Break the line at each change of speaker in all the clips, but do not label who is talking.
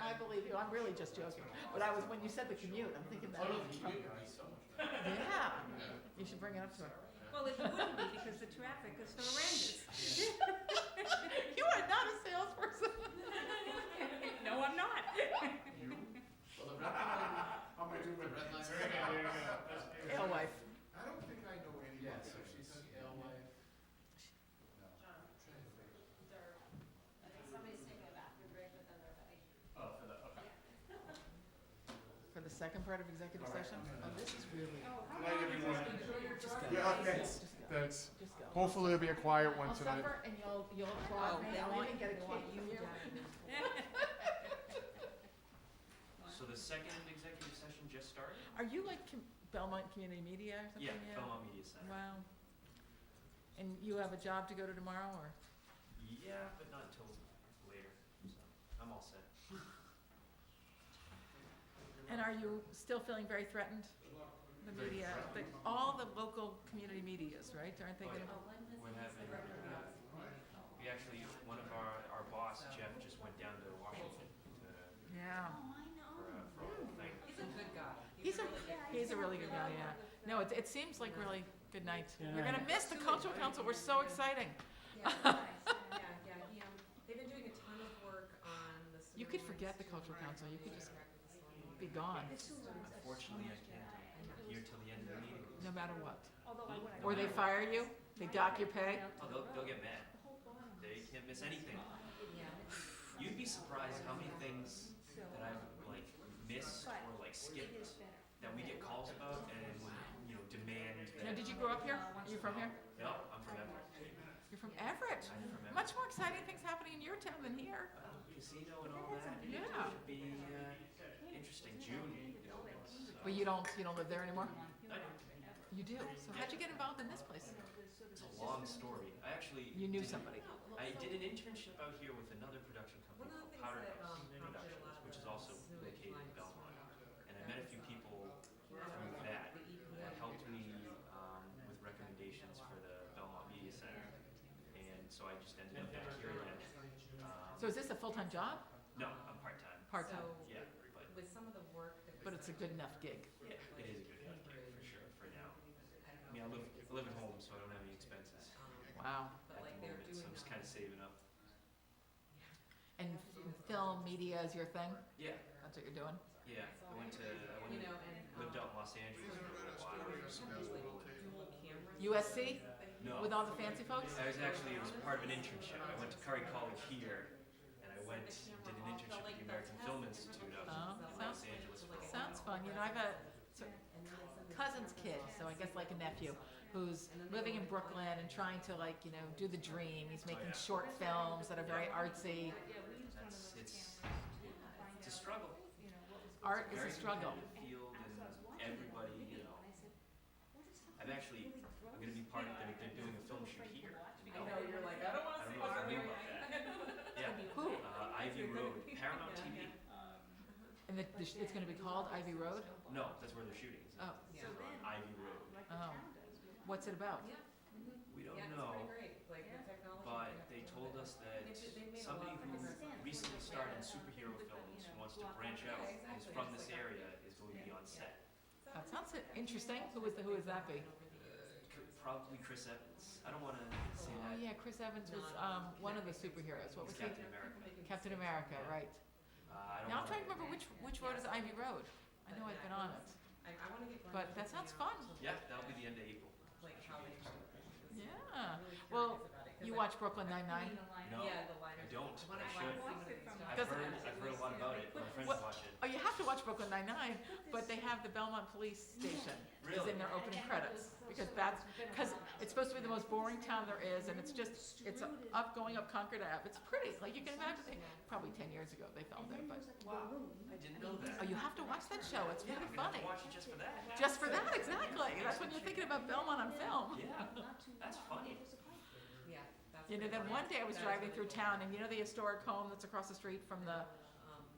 I believe you, I'm really just joking, but I was, when you said the commute, I'm thinking that,
Oh.
yeah, you should bring it up to her.
Well, it wouldn't be because the traffic is horrendous.
You are not a salesperson.
No, I'm not.
Well, the red line, I'm gonna do with red line.
Alewife,
I don't think I know anyone, so she's an alewife. No.
Oh, for the, okay.
for the second part of executive session, oh, this is really,
Night, everyone.
just go.
Yeah,
Just
thanks.
go.
Thanks.
Just go.
Hopefully it'll be a quiet one
I'll
tonight.
suffer and you'll, you'll
Oh,
applaud me, I'll even get a cake from you.
So the second executive session just started?
Are you like com- Belmont Community Media or something?
Yeah, Belmont Media Center.
Wow. And you have a job to go to tomorrow, or?
Yeah, but not until later, so I'm all set.
And are you still feeling very threatened? The
Very
media, the,
threatened.
all the local community medias, right, aren't they
Oh,
gonna?
We're having, uh, we actually, one of our, our boss, Jeff, just went down to Washington to,
Yeah.
for a, for a whole thing.
He's a good guy.
He's a, he's a really good guy, yeah. No, it, it seems like really good night. We're gonna miss the cultural council, we're so exciting.
Yeah, yeah, yeah, he, um, they've been doing a ton of work on the.
You could forget the cultural council, you could just be gone,
Unfortunately, I can't, I'm here till the end of the meeting.
no matter what.
Although I would, I
Or they fire you, they dock your pay.
Oh, they'll, they'll get mad. They can't miss anything. You'd be surprised how many things that I've like missed or like skipped that we get calls about and, you know, demand
Now,
that.
did you grow up here? Are you from here?
No, I'm from Everett.
You're from Everett.
I'm from Everett.
Much more exciting things happening in your town than here.
Uh, Casino and all that.
Yeah.
Should be, uh, interesting, June, you know, it's, uh,
But you don't, you don't live there anymore?
I don't-
You do, so how'd you get involved in this place?
it's a long story. I actually.
You knew
did-
somebody.
I did an internship out here with another production company
One
called
of the things
Powder
that,
House
um, prompted a
Productions,
lot of
which is
the
also
sewage
located in
lines
Belmont.
were-
And I met a few people
E
from that that helped me um, with recommendations for the Belmont Media Center. And so I just ended up back here again. Um,
So is this a full-time job?
No, I'm part-time.
Part-time,
So,
Yeah, but
with some of the work that was.
but it's a good enough gig.
yeah, it is a good health care for sure, for now. I mean, I live, I live at home, so I don't have any expenses
Wow.
um,
at the moment, so I'm just kind of saving up.
And f- film, media is your thing?
Yeah,
That's what you're doing?
yeah, I went to, I went
You
to,
know, and.
lived
um,
out in Los Angeles for a little while.
dual cameras.
USC
No.
with all the fancy folks?
I was actually, it was part of an internship. I went to Curry College here, and I went, did an internship at the American Film Institute out
Oh,
in Los
sounds-
Angeles for a while.
Sounds fun. You know, I have a so- cousin's kid, so I guess like a nephew, who's living in Brooklyn and trying to like, you know, do the dream. He's making
Oh, yeah.
short films that are very artsy.
That's, it's, it's a struggle.
Art is
Very
a struggle.
competitive Field and everybody, you know. I'm actually, I'm gonna be part of, they're, they're doing a film shoot here. in
I know,
Belmont.
you're like, I don't wanna
I don't
see
know if
what's
I
on
knew
there.
about that. Yeah,
Who?
uh, Ivy Road, Paramount TV.
And the, the, sh- it's going to be called Ivy Road?
No, that's where they're shooting. It's
Oh,
Yeah.
on Ivy Road.
oh. What's it about?
Yeah,
We don't
yeah, it's
know,
pretty great, like the technology.
but
we have
they
to
told
do.
us that
They ju- they made a
somebody
lot of
who
progress.
recently started in superhero films, who wants to branch
Yeah,
out, is
exactly.
from
It's
this
like-
area, is going to be on set.
That sounds i- interesting. Who is the, who is that be?
Could- Probably Chris Evans. I don't wanna say
Oh,
that.
yeah, Chris Evans was um, one of the superheroes. What was
He's
he?
Captain America.
Oh, Captain America, right.
Uh, I
Now I'm
don't wanna-
trying to remember which, which road is Ivy Road. I know I've been on it.
I, I wanna get. Glenn
But
to
that
figure
sounds
out,
fun.
Yeah, that'll be the end of April.
Like how they shoot it. 'cause I'm
Yeah.
really curious
Uh, Well,
about it, 'cause
You
I-
watch Brooklyn Nine-Nine?
No,
Yeah, the liners.
I don't,
When
but I
watch
should.
some of these
I've
I've
documentaries,
Doesn't-
heard, I've heard a lot about it. My friends
What-
watch it.
Oh, you have to watch Brooklyn Nine-Nine, but they have the Belmont Police Station is
Really?
in their opening credits, because that's, because it's supposed to be the most boring town there is, and it's just, it's up, going up Concord Ave, it's pretty, like, you can imagine, they- probably ten years ago they filmed it, but,
Wow, I didn't know that.
oh, you have to watch that show, it's
Yeah,
really
I'm gonna have
funny.
to watch it just for that.
Just for that, exactly, that's when you're thinking about Belmont on film.
Yeah, that's funny.
Yeah, that's.
You know,
what I
then one
want.
day I was
That is
driving
what
through
I-
town, and you know the historic home that's across the street from the,
Um,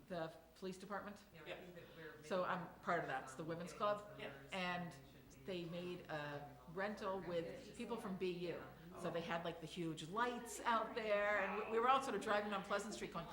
the police department?
yeah,
Yeah.
I think that we're.
So
maybe,
I'm part of that, it's the
um,
women's
getting
club,
some
Yeah.
numbers
and
we should be-
they made a rental with people from BU. So
Oh.
they had like the huge lights out there, and we- we were all sort of driving on Pleasant Street going,